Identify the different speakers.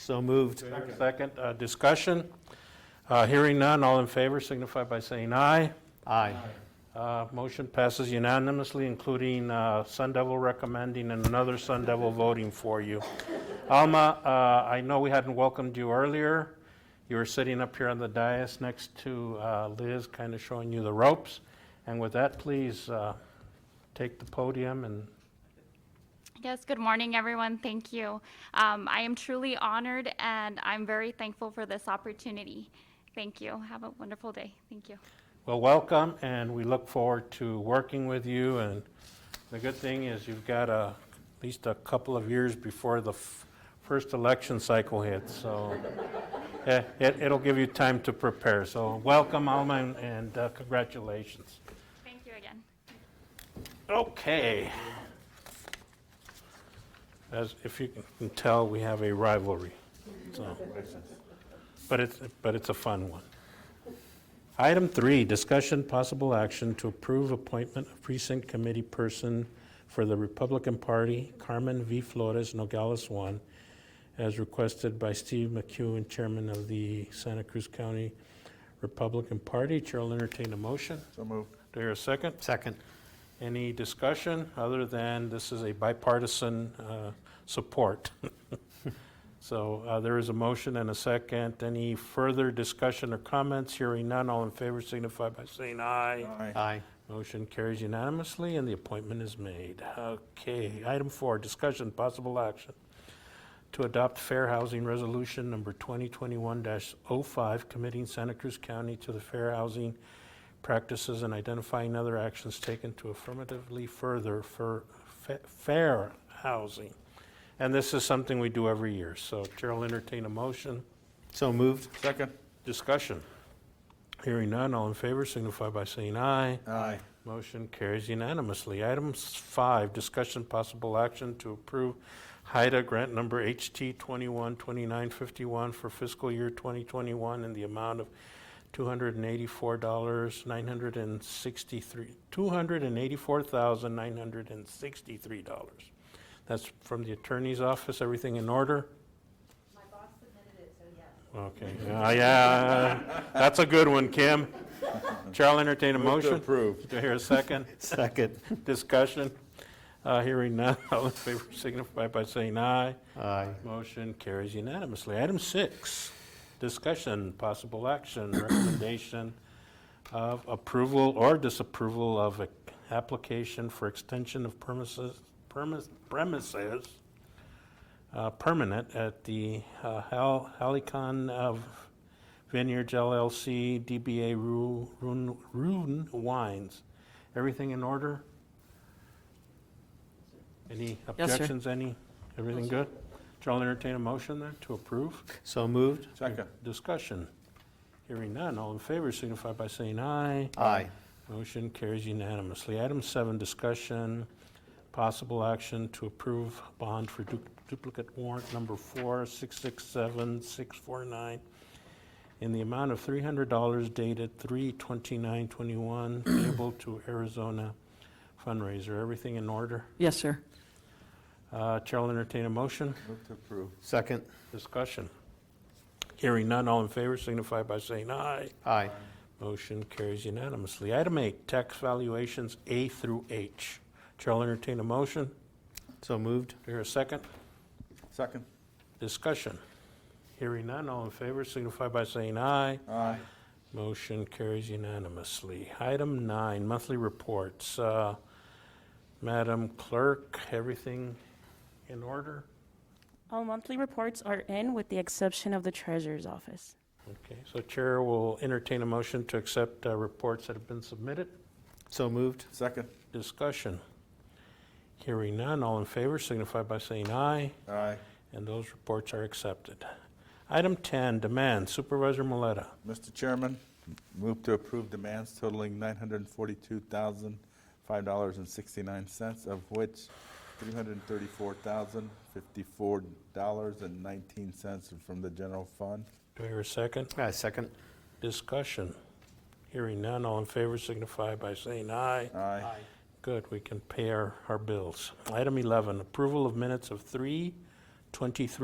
Speaker 1: So moved. Second, uh, discussion. Uh, Hearing none, all in favor signify by saying aye.
Speaker 2: Aye.
Speaker 1: Uh, Motion passes unanimously, including uh, Sun Devil recommending and another Sun Devil voting for you. Alma, uh, I know we hadn't welcomed you earlier. You were sitting up here on the dais next to uh, Liz, kind of showing you the ropes. And with that, please uh, take the podium and
Speaker 3: Yes, good morning, everyone. Thank you. Um, I am truly honored and I'm very thankful for this opportunity. Thank you. Have a wonderful day. Thank you.
Speaker 1: Well, welcome, and we look forward to working with you. And the good thing is you've got a, at least a couple of years before the f- first election cycle hits, so eh, it, it'll give you time to prepare. So welcome, Alma, and- and uh, congratulations.
Speaker 3: Thank you again.
Speaker 1: Okay. As if you can tell, we have a rivalry. so. But it's, but it's a fun one. Item three, discussion, possible action to approve appointment of precinct committee person for the Republican Party, Carmen V. Flores Nogales one, as requested by Steve McEwen, chairman of the Santa Cruz County Republican Party. Chair will entertain a motion.
Speaker 4: So moved.
Speaker 1: Do I hear a second?
Speaker 2: Second.
Speaker 1: Any discussion other than this is a bipartisan uh, support? So uh, there is a motion and a second. Any further discussion or comments? Hearing none, all in favor signify by saying aye.
Speaker 2: Aye.
Speaker 1: Motion carries unanimously, and the appointment is made. Okay, item four, discussion, possible action to adopt Fair Housing Resolution Number 2021-05, committing Santa Cruz County to the fair housing practices and identifying other actions taken to affirmatively further for fa- fair housing. And this is something we do every year, so Chair will entertain a motion.
Speaker 2: So moved.
Speaker 4: Second.
Speaker 1: Discussion. Hearing none, all in favor signify by saying aye.
Speaker 4: Aye.
Speaker 1: Motion carries unanimously. Item s- five, discussion possible action to approve HIDA grant number HT 212951 for fiscal year 2021 in the amount of $284,963, $284,963. That's from the attorney's office. Everything in order? My boss submitted it, so yes. Okay, yeah, yeah, that's a good one, Kim. Chair, I'll entertain a
Speaker 4: Move to
Speaker 1: motion.
Speaker 4: approve.
Speaker 1: Do I hear a second?
Speaker 2: Second.
Speaker 1: Discussion? Uh, Hearing none, all in favor signify by saying aye.
Speaker 2: Aye.
Speaker 1: Motion carries unanimously. Item six, discussion, possible action, recommendation of approval or disapproval of a application for extension of premises, premise- premises, uh, permanent at the uh, Hal- Halicon of Vineyards LLC, DBA Ru- Rune Rune Wines. Everything in order? Any
Speaker 5: sir.
Speaker 1: objections, any? Everything good? Chair will entertain a motion then to approve.
Speaker 2: So moved.
Speaker 4: Second.
Speaker 1: Discussion. Hearing none, all in favor signify by saying aye.
Speaker 2: Aye.
Speaker 1: Motion carries unanimously. Item seven, discussion, possible action to approve bond for du- duplicate warrant number four six six seven six four nine in the amount of $300 dated 3/29/21 payable to Arizona fundraiser. Everything in order?
Speaker 5: Yes, sir.
Speaker 1: Uh, Chair will entertain a motion.
Speaker 4: Move to approve.
Speaker 2: Second.
Speaker 1: Discussion. Hearing none, all in favor signify by saying aye.
Speaker 2: Aye.
Speaker 1: Motion carries unanimously. Item eight, tax valuations A through H. Chair will entertain a motion.
Speaker 2: So moved.
Speaker 1: Do I hear a second?
Speaker 4: Second.
Speaker 1: Discussion. Hearing none, all in favor signify by saying aye.
Speaker 4: Aye.
Speaker 1: Motion carries unanimously. Item nine, monthly reports. Uh, Madam Clerk, everything in order?
Speaker 6: All monthly reports are in with the exception of the treasurer's office.
Speaker 1: Okay, so Chair will entertain a motion to accept uh, reports that have been submitted.
Speaker 2: So moved.
Speaker 4: Second.
Speaker 1: Discussion. Hearing none, all in favor signify by saying aye.
Speaker 4: Aye.
Speaker 1: And those reports are accepted. Item 10, demand Supervisor Maleta.
Speaker 4: Mr. Chairman, move to approve demands totaling nine hundred and forty-two thousand, five dollars and sixty-nine cents, of which three hundred and thirty-four thousand, fifty-four dollars and nineteen cents from the general fund.
Speaker 1: Do I hear a second?
Speaker 2: Aye, second.
Speaker 1: Discussion. Hearing none, all in favor signify by saying aye.
Speaker 4: Aye.
Speaker 1: Good, we can pay our, our bills. Item 11, approval of minutes of 3:23